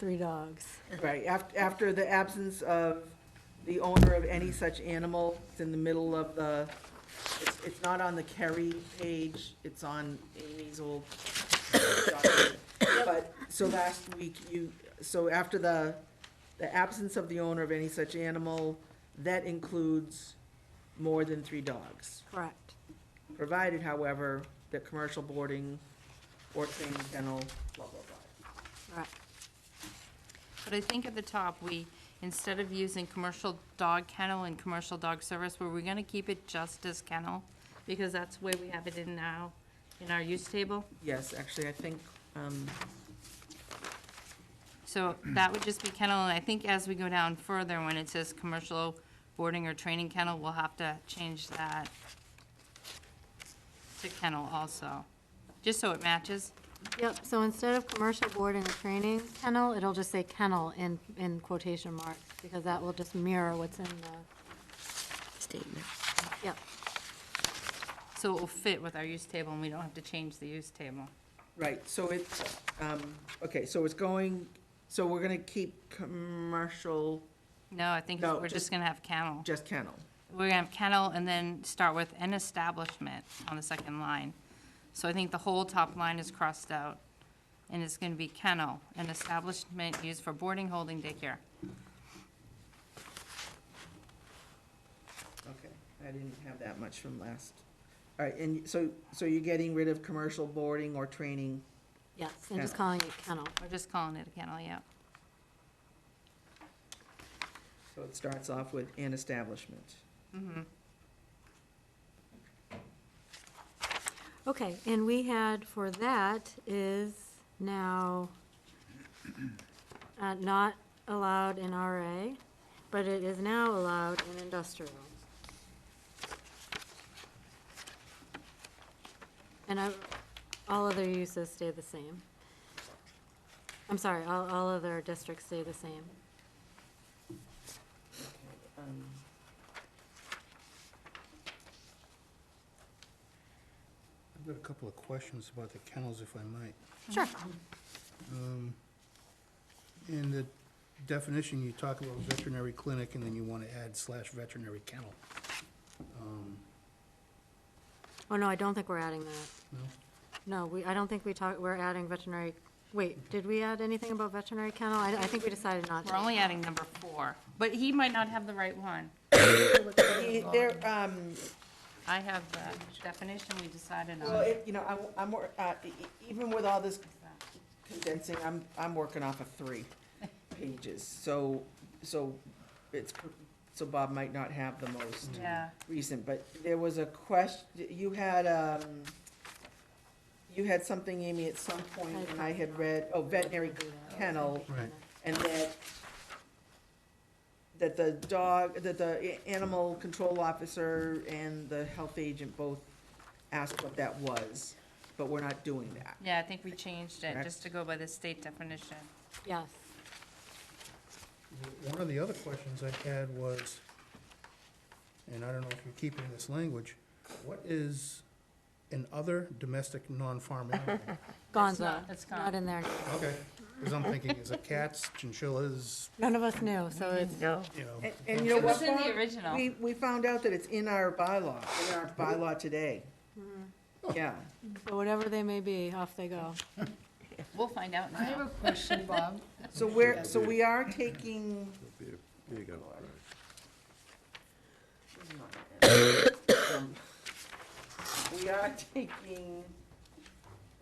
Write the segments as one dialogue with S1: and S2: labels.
S1: Three dogs.
S2: Right, after, after the absence of the owner of any such animal, it's in the middle of the, it's, it's not on the Kerry page, it's on Amy's old. document. But, so last week, you, so after the, the absence of the owner of any such animal, that includes more than three dogs.
S1: Correct.
S2: Provided, however, that commercial boarding or training kennel, blah, blah, blah.
S1: Right.
S3: But I think at the top, we, instead of using commercial dog kennel and commercial dog service, were we gonna keep it just as kennel? Because that's where we have it in now, in our use table.
S2: Yes, actually, I think, um,
S3: So that would just be kennel, and I think as we go down further, when it says commercial boarding or training kennel, we'll have to change that to kennel also, just so it matches.
S4: Yep, so instead of commercial boarding or training kennel, it'll just say kennel in, in quotation marks, because that will just mirror what's in the,
S5: statement.
S4: yep,
S3: So it will fit with our use table, and we don't have to change the use table.
S2: Right, so it's, um, okay, so it's going, so we're gonna keep commercial,
S3: No, I think
S2: No,
S3: we're
S2: just-
S3: just gonna have kennel.
S2: just kennel.
S3: We're gonna have kennel and then start with an establishment on the second line. So I think the whole top line is crossed out, and it's gonna be kennel, an establishment used for boarding, holding, daycare.
S2: Okay, I didn't have that much from last. All right, and so, so you're getting rid of commercial boarding or training?
S4: yes, and just
S2: Kennel.
S4: calling it kennel.
S3: We're just calling it a kennel, yeah.
S2: So it starts off with an establishment.
S4: Okay, and we had for that is now uh, not allowed in RA, but it is now allowed in industrial. And I, all other uses stay the same. I'm sorry, all, all other districts stay the same.
S2: Um,
S6: I've got a couple of questions about the kennels, if I might.
S4: Sure.
S6: Um, In the definition, you talk about veterinary clinic, and then you want to add slash veterinary kennel. Um,
S4: Oh, no, I don't think we're adding that.
S6: No?
S4: No, we, I don't think we talked, we're adding veterinary, wait, did we add anything about veterinary kennel? I, I think we decided not to.
S3: We're only adding number four, but he might not have the right one.
S2: he- There, um,
S3: I have the definition we decided
S2: well,
S3: on.
S2: it- you know, I'm, I'm, wor- uh, e- e- even with all this condensing, I'm, I'm working off of three pages. So, so it's, so Bob might not have the most.
S3: Yeah,
S2: recent, but there was a question, you had, um, you had something, Amy, at some point, and I had read, oh, veterinary kennel,
S6: Right.
S2: and that, that the dog, that the a- animal control officer and the health agent both asked what that was, but we're not doing that.
S3: yeah, I think we changed it just to go by the state definition.
S4: Yes.
S6: One of the other questions I had was, and I don't know if you're keeping this language, what is an other domestic non-farm animal?
S4: Gonzo,
S3: not- it's gone.
S4: not in there.
S6: Okay, because I'm thinking, is it cats, chinchillas,
S4: None of us knew, so it's,
S5: No.
S6: you know?
S2: And, and you know
S3: It
S2: what?
S3: was in the
S2: Bob?
S3: original.
S2: We, we found out that it's in our bylaw, in our bylaw today. Yeah,
S4: but whatever they may be, off they go.
S3: We'll find out
S7: I have
S3: now.
S7: a question, Bob.
S2: so we're, so we are taking.
S8: There you go.
S2: Um, We are taking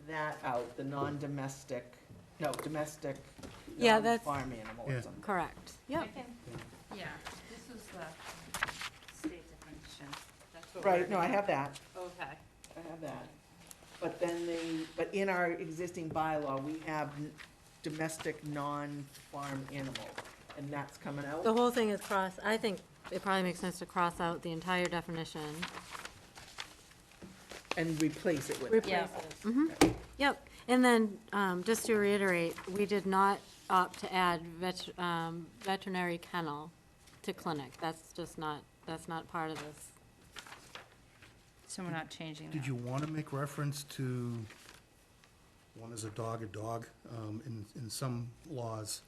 S2: that out, the non-domestic, no, domestic, um,
S4: Yeah, that's-
S2: non-farm animal or
S6: Yeah.
S2: something.
S4: Correct,
S3: I
S4: yep.
S3: can- Yeah, this was the state definition. That's what
S2: Right,
S3: we're-
S2: no, I have that,
S3: Okay.
S2: I have that. But then the, but in our existing bylaw, we have n- domestic, non-farm animal, and that's coming
S4: The
S2: out.
S4: whole thing is cross, I think it probably makes sense to cross out the entire definition.
S2: And replace it with.
S3: Yeah.
S4: Yep, and then, um, just to reiterate, we did not opt to add vet, um, veterinary kennel to clinic. That's just not, that's not part of this.
S3: So we're not changing
S6: Did you
S3: that.
S6: want to make reference to, one is a dog, a dog, um, in, in some laws,